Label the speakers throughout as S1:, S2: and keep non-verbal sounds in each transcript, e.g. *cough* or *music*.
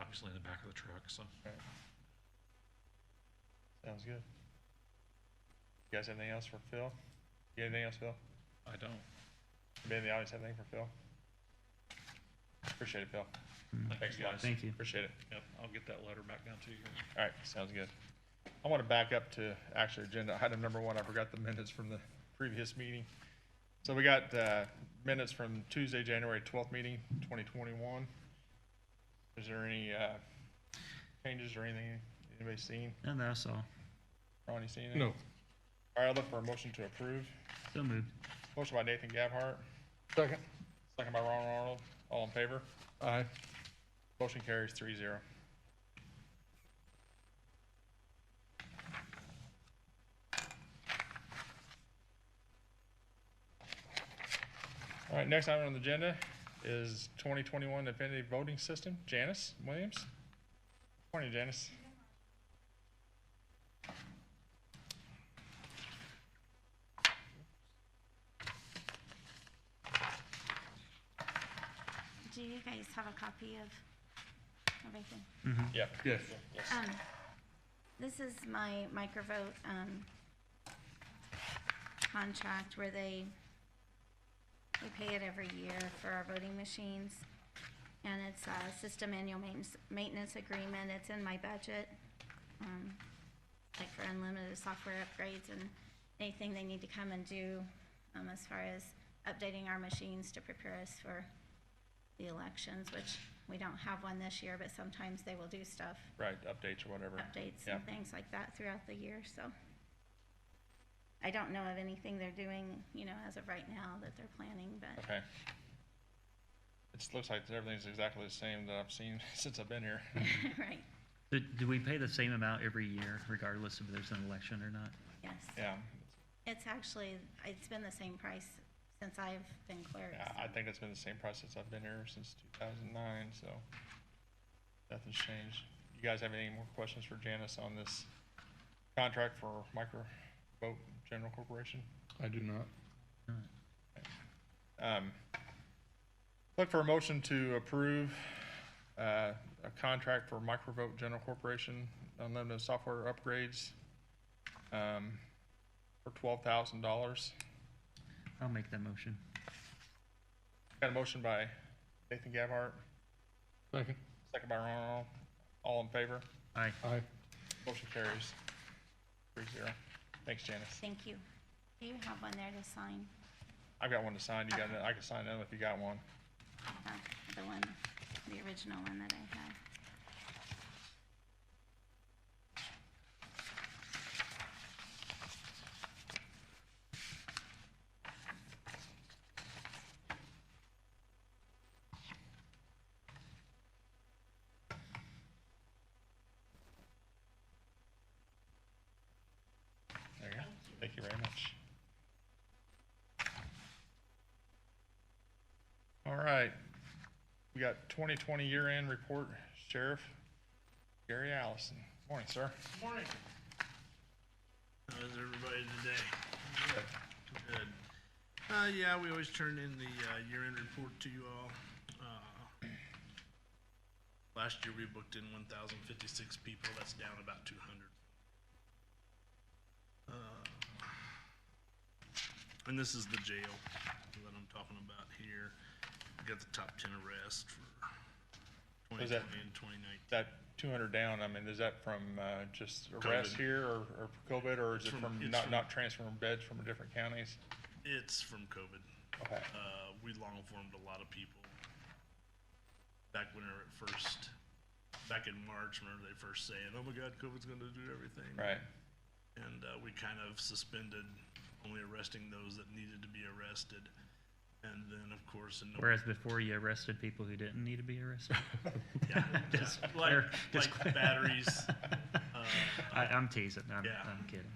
S1: obviously in the back of the truck, so.
S2: Sounds good. You guys have anything else for Phil? You got anything else, Phil?
S1: I don't.
S2: Anybody in the audience have anything for Phil? Appreciate it, Phil. Thanks, guys.
S3: Mm. Thank you.
S2: Appreciate it.
S1: Yep, I'll get that letter back down to you.
S2: All right, sounds good. I want to back up to actually agenda item number one. I forgot the minutes from the previous meeting. So we got uh, minutes from Tuesday, January 12th meeting, 2021. Is there any uh, changes or anything anybody seen?
S3: And that's all.
S2: Ronnie seen anything? No. All right, I'll look for a motion to approve.
S3: So moved.
S2: Motion by Nathan Gabhart,
S4: Second.
S2: second by Ron Arnold. All in favor?
S4: Aye.
S2: Motion carries three zero. All right, next item on the agenda is 2021 Definitive Voting System. Janice Williams. Morning, Janice.
S5: Do you guys have a copy of everything?
S2: Yep.
S4: Yes.
S5: Um, this is my microvote, um, contract where they, we pay it every year for our voting machines. And it's a system annual maintenance, maintenance agreement. It's in my budget. Um, like for unlimited software upgrades and anything they need to come and do, um, as far as updating our machines to prepare us for the elections, which we don't have one this year, but sometimes they will do stuff
S2: Right, updates or whatever.
S5: updates
S2: Yeah.
S5: and things like that throughout the year, so. I don't know of anything they're doing, you know, as of right now that they're planning, but *laughs*
S2: Okay. It just looks like everything's exactly the same that I've seen *laughs* since I've been here.
S5: right,
S3: Do, do we pay the same amount every year regardless if there's an election or not?
S5: yes.
S2: Yeah,
S5: It's actually, it's been the same price since I've been clerk.
S2: Yeah, I think it's been the same price since I've been here since two thousand nine, so nothing's changed. You guys have any more questions for Janice on this contract for Micro Boat General Corporation?
S4: I do not.
S3: Not.
S2: Um, look for a motion to approve, uh, a contract for Micro Boat General Corporation unlimited software upgrades, um, for twelve thousand dollars.
S3: I'll make that motion.
S2: Got a motion by Nathan Gabhart,
S4: Second.
S2: second by Ron Aron. All in favor?
S3: Aye.
S4: Aye.
S2: Motion carries. Three zero. Thanks, Janice.
S5: Thank you. Do you have one there to sign?
S2: I've got one to sign. You got, another- I can sign another if you got one.
S5: Uh, The one, the original one that I had.
S2: There you go. Thank you very much. All right. We got twenty twenty year-end report, Sheriff Gary Allison. Morning, sir.
S6: Morning. How's everybody today? Good. Uh, yeah, we always turn in the, uh, year-end report to you all. Uh, Last year, we booked in one thousand fifty-six people, that's down about two hundred. Uh, And this is the jail that I'm talking about here. We Got the top ten arrests for
S2: Was
S6: twenty
S2: that-
S6: twenty and twenty nineteen.
S2: That two hundred down, I mean, is that from, uh, just arrest
S6: COVID.
S2: here or, or COVID, or is
S6: It's
S2: it
S6: from-
S2: from
S6: it's
S2: not,
S6: from-
S2: not transferring beds from different counties?
S6: It's from COVID.
S2: Okay,
S6: uh, we long formed a lot of people. Back when we were at first, back in March, remember they first saying, oh my God, COVID's gonna do everything.
S2: right.
S6: And, uh, we kind of suspended only arresting those that needed to be arrested. And then, of course, in.
S3: Whereas before you arrested people who didn't need to be
S6: *laughs*
S3: arrested. *laughs*
S6: Yeah, yeah,
S3: Just
S6: Like,
S3: clear- just clear.
S6: like
S3: *laughs*
S6: batteries, uh,
S3: I, I'm teasing. I'm,
S6: Yeah.
S3: I'm kidding.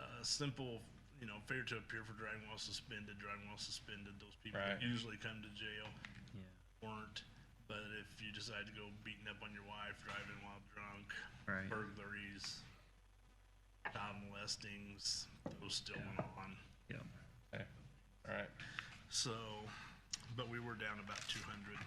S6: uh, simple, you know, failure to appear for driving while suspended, driving while suspended, those people
S2: Right.
S6: usually come to jail.
S3: Yeah.
S6: weren't, but if you decide to go beating up on your wife, driving while drunk,
S3: Right.
S6: burglaries, child molestings, those still went on.
S3: Yep.
S2: Okay. All right.
S6: So, but we were down about two hundred